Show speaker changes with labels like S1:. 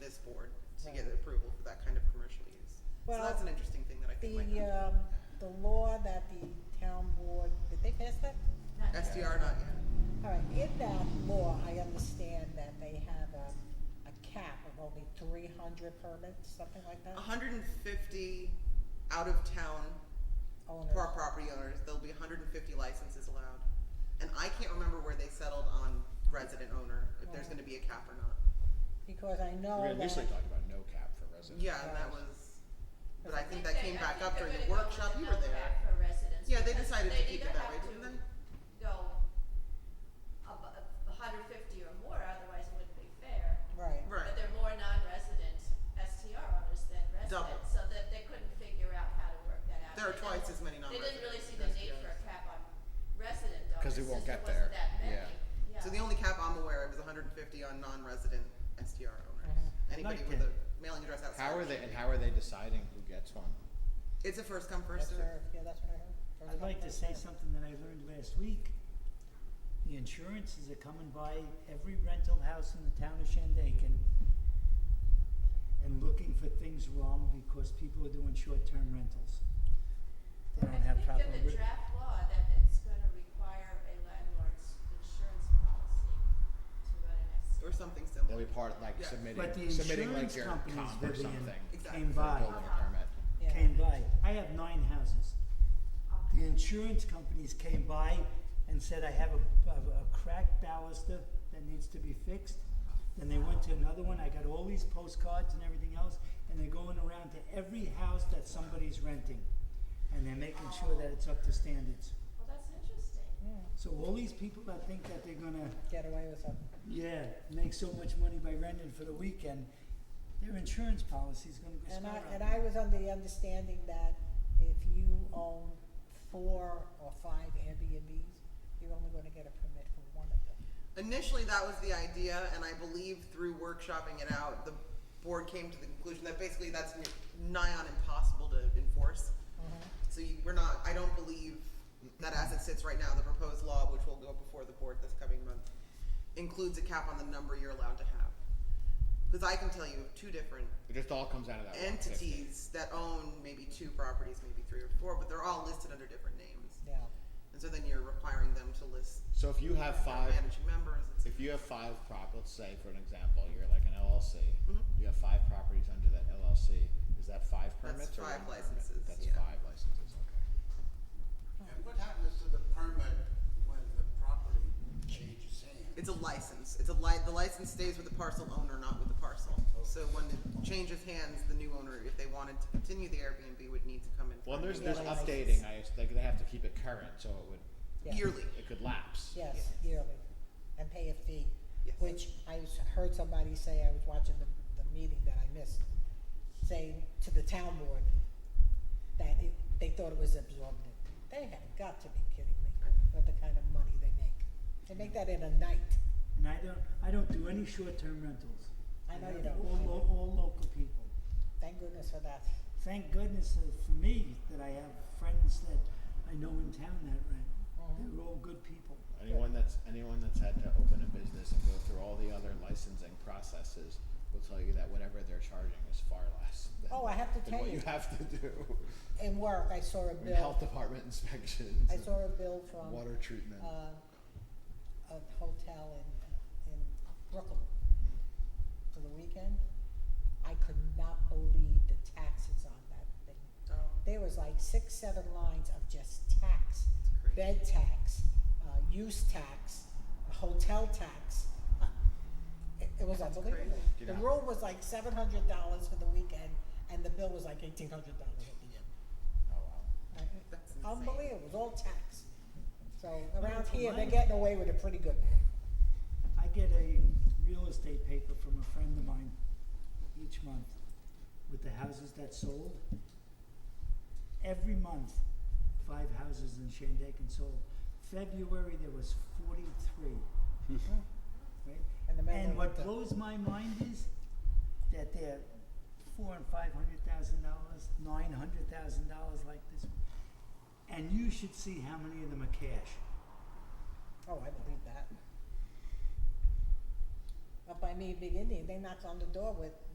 S1: to get approval for that kind of commercial use. So
S2: Well,
S1: that's an interesting thing that I think
S2: The,
S1: might come.
S2: um, the law that the town board, did they pass that?
S1: SDR not yet.
S2: All right, in that law, I understand that they have a, a cap of only three hundred permits, something like
S3: Uh-huh.
S2: that?
S1: hundred and fifty out of town
S2: Owners.
S1: pro- property owners, there'll be hundred and fifty licenses allowed. And I can't remember where they settled on resident owner, if there's gonna be a cap or not.
S2: Because I know
S4: We
S2: that.
S4: initially talked about no cap for residents.
S1: Yeah, and that
S2: Right.
S1: was, but I think that came back up during the workshop, you were there.
S5: for residents.
S1: Yeah, they
S5: because
S1: decided to
S5: they'd
S1: keep
S5: either
S1: it that
S5: have
S1: way,
S5: to
S1: didn't they?
S5: Go ab a hundred fifty or more, otherwise it wouldn't be fair.
S2: Right.
S5: But
S1: Right,
S5: there are more non-resident STR owners than
S1: Double.
S5: residents, so that they couldn't figure out how to work that out.
S1: there are
S5: They
S1: twice
S5: didn't-
S1: as many
S5: They
S1: non-residents.
S5: didn't really see the need for a
S1: SDRs.
S5: cap on resident owners,
S4: 'Cause
S5: since
S4: we
S5: there
S4: won't
S5: wasn't
S4: get
S5: that
S4: there,
S5: many,
S4: yeah.
S5: yeah.
S1: So the only cap I'm aware of is hundred and fifty on non-resident SDR owners.
S4: Mhm.
S1: Anybody with
S4: Not
S1: a
S4: good.
S1: mailing address outside.
S4: How are
S1: of
S4: they,
S1: the
S4: and
S1: city.
S4: how are they deciding who gets one?
S1: It's a first come,
S2: That's
S1: first served.
S2: her, yeah, that's what I heard. First
S3: I'd
S2: come,
S3: like to
S2: first
S3: say
S2: served.
S3: something that I learned last week. The insurances are coming by every rental house in the town of Shandaken and looking for things wrong because people are doing short-term rentals. They don't have proper.
S5: I think in the
S3: re-
S5: draft law that it's gonna require a landlord's insurance policy to run an SCR.
S1: or something
S4: They'll
S1: similar.
S4: be part, like
S1: Yeah.
S4: submitting,
S3: But the
S4: submitting like
S3: insurance
S4: your
S3: companies,
S4: comp or
S3: Vivian,
S4: something
S1: Exactly.
S3: came
S4: for
S3: by,
S4: building a permit.
S2: Yeah.
S3: came by. I have nine houses. The
S5: Okay.
S3: insurance companies came by and said, I have a, a, a cracked baluster that needs to be fixed. Then they went to another one, I got all these postcards and everything else, and they're going around to every house that somebody's renting. And they're making sure that it's up to standards.
S5: Well, that's interesting.
S2: Yeah,
S3: So all these people that think that they're gonna,
S2: Get away with something.
S3: yeah, make so much money by renting for the weekend, their insurance policy's gonna go
S2: And I,
S3: skyrocket.
S2: and I was under the understanding that if you own four or five Airbnbs, you're only gonna get a permit for one of them.
S1: Initially, that was the idea, and I believe through workshopping it out, the board came to the conclusion that basically that's n- nigh on impossible to enforce. So you, we're not. I don't believe that as it sits right now, the proposed law, which will go before the board this coming month, includes a cap on the number you're allowed to have. Because I can tell you of two different
S4: It just all comes out of that one fifty.
S1: entities that own maybe two properties, maybe three or four, but they're all listed under different names.
S2: Yeah,
S1: And so then you're requiring them to list
S4: So if you have
S1: their
S4: five,
S1: managing members. It's,
S4: if you have five prop, let's say for an example, you're like an LLC.
S1: Mhm.
S4: You have five properties under that LLC. Is that five
S1: That's
S4: permits or one
S1: five
S4: permit?
S1: licenses,
S4: That's
S1: yeah.
S4: five licenses, okay.
S6: And what happens to the permit when the property changes hands?
S1: It's a license. It's a li- the license stays with the parcel owner, not with the parcel. So when it changes hands, the new owner, if they wanted to continue the Airbnb, would need to come in. for
S4: Well,
S1: a
S4: there's,
S1: new
S4: there's
S2: Yeah, like-
S4: updating, I, like, they have to keep it current, so it would,
S2: yeah.
S1: Yearly.
S4: it could lapse.
S2: Yes, yearly, and pay a fee,
S1: Yes.
S2: which I s- heard somebody say, I was watching the, the meeting that I missed, saying to the town board that it, they thought it was absorbent. They have got to be kidding me with the kind of money they make. They make that in a night.
S3: And I don't, I don't do any short-term rentals.
S2: I know you
S3: do
S2: don't.
S3: All, lo- all local people.
S2: Thank goodness for that.
S3: Thank goodness uh, for me that I have friends that I know in town that rent.
S2: Mhm.
S3: They're all good people.
S4: Anyone that's, anyone that's had to open a business and go through all the other licensing processes will tell you that whatever they're charging is far less than,
S2: Oh, I have to
S4: than
S2: tell
S4: what
S2: you.
S4: you have to do.
S2: In work, I saw a
S4: I mean, Health
S2: bill,
S4: department inspections.
S2: I
S4: and
S2: saw a bill from,
S4: Water treatment.
S2: uh, a uh, hotel in, in Brooklyn for the weekend. I could not believe the taxes on that thing.
S1: Oh,
S2: There was like six, seven lines of just tax,
S1: it's crazy.
S2: bed tax, uh, use tax, hotel tax. Uh, It, it was unbelievable.
S1: crazy.
S4: Do you
S2: The
S4: know-
S2: room was like seven hundred dollars for the weekend, and the bill was like eighteen hundred dollars at the end.
S4: Oh, wow.
S1: That's insane.
S2: Unbelievable, it was all tax. So around
S3: it's a
S2: here, they're
S3: lot.
S2: getting away with it pretty good.
S3: I get a real estate paper from a friend of mine each month with the houses that sold. Every month, five houses in Shandaken sold. February, there was forty-three.
S2: Hmm.
S3: Right?
S2: And the man
S3: And
S2: went
S3: what
S2: to-
S3: blows my mind is that they're four and five hundred thousand dollars, nine hundred thousand dollars like this one. And you should see how many of them are cash.
S2: Oh, I believe that. Up by me, Big Indian, they knocked on the door with